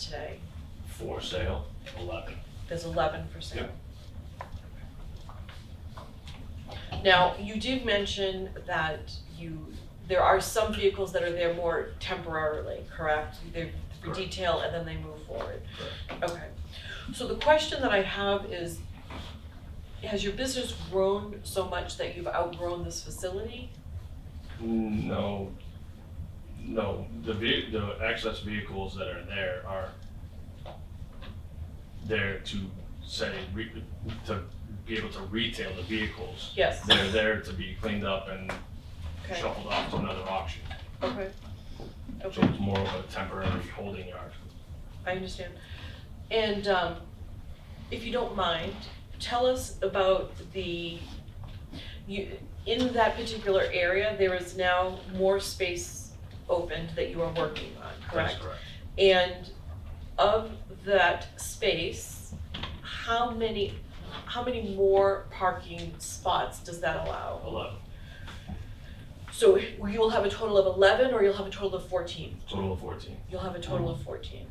today? For sale, eleven. There's eleven for sale. Now, you did mention that you, there are some vehicles that are there more temporarily, correct? They're for Correct. detail and then they move forward. Okay. So the question that I have is, has your business grown so much that you've outgrown this facility? No, no, the ve- the access vehicles that are there are there to say, re- to be able to retail the vehicles. Yes, They're there to be cleaned up and okay, shuffled off to another auction. okay. So Okay, it's more of a temporary holding yard. I understand. And um, if you don't mind, tell us about the, you, in that particular area, there is now more space opened that you are working on, correct? That's correct. And of that space, how many, how many more parking spots does that allow? Eleven, So you'll have a total of eleven or you'll have a total of fourteen? total of fourteen. You'll have a total of fourteen.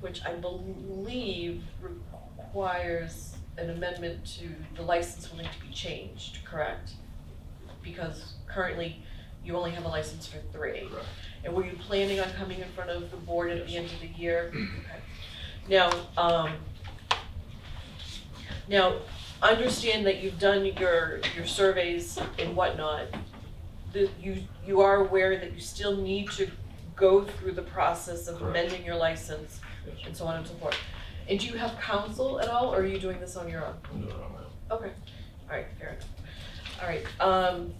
Which I believe requires an amendment to, the license will need to be changed, correct? Because currently, you only have a license for three. Correct. And were you planning on coming in front of the board at the end of the year? Okay. Now, um, now, understand that you've done your, your surveys and whatnot. That you, you are aware that you still need to go through the process of Correct. amending your license Yes, and so on and so forth. And do you have counsel at all, or are you doing this on your own? I'm doing it on my own. Okay, all right, fair enough. All right, um,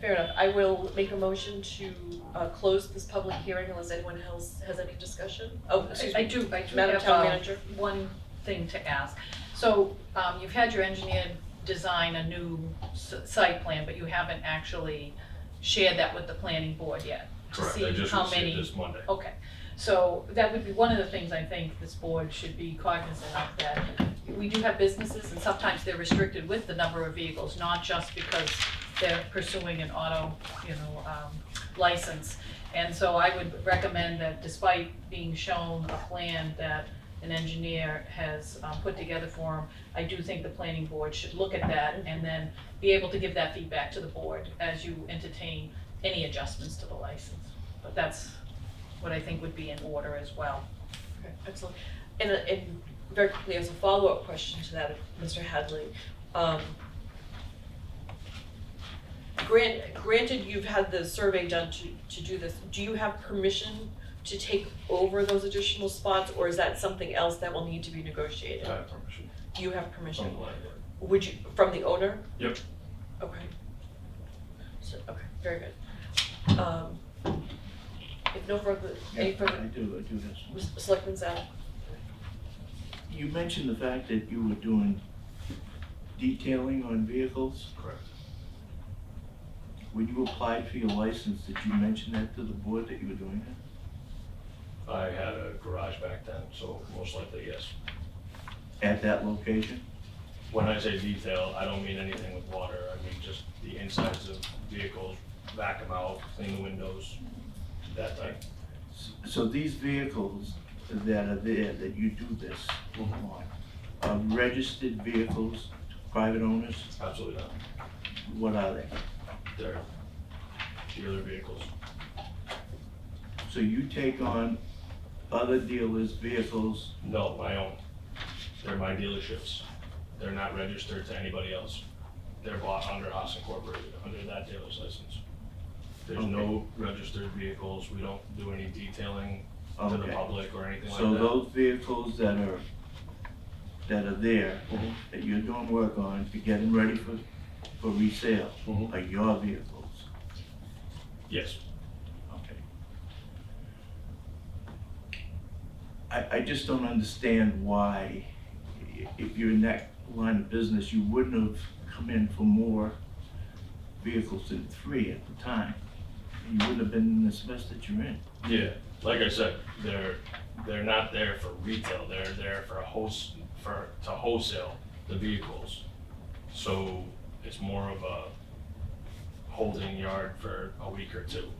fair enough. I will make a motion to, uh, close this public hearing unless anyone else has any discussion. Oh, excuse I me, do, I do Madam have Town uh, Manager. one thing to ask. So um, you've had your engineer design a new s- site plan, but you haven't actually shared that with the planning board yet. to Correct, I see just how received many- this Monday. Okay, so that would be one of the things I think this board should be cognizant of, that we do have businesses and sometimes they're restricted with the number of vehicles, not just because they're pursuing an auto, you know, um, license. And so I would recommend that despite being shown a plan that an engineer has, um, put together for him, I do think the planning board should look at that and then be able to give that feedback to the board as you entertain any adjustments to the license. But that's what I think would be in order as well. Okay, excellent. And, uh, and very quickly, as a follow-up question to that, Mr. Hadley, um, grant, granted you've had the survey done to, to do this, do you have permission to take over those additional spots, or is that something else that will need to be I negotiated? have permission Do you have permission? Uh, from the landlord. Would you, from the owner? Yep. Okay. So, okay, very good. Um, if no further, I any do, further, I do this. S- Selectman Zapp? You mentioned the fact that you were doing detailing on vehicles. Correct. When you applied for your license, did you mention that to the board that you were doing that? I had a garage back then, so most likely, yes. At that location? When I say detail, I don't mean anything with water, I mean just the insides of vehicles, back them out, clean the windows, that type. S- So these vehicles that are there, that you do this Mm-hmm. on, are registered vehicles, private owners? Absolutely not. What are they? They're dealer vehicles, So you take on other dealers' vehicles, no, my own. They're my dealerships. They're not registered to anybody else. They're bought under Haas Incorporated, under that dealer's license. There's no registered vehicles, we don't do any detailing to the Okay. public or anything like that. So those vehicles that are, that are there, Mhm. that you're doing work on, to get them ready for, for resale, Mhm. are your vehicles? Yes, Okay. I, I just don't understand why, i- if you're in that line of business, you wouldn't have come in for more vehicles than three at the time. You wouldn't have been in this mess that you're in. yeah, like I said, they're, they're not there for retail, they're there for host, for, to wholesale the vehicles. So it's more of a holding yard for a week or two.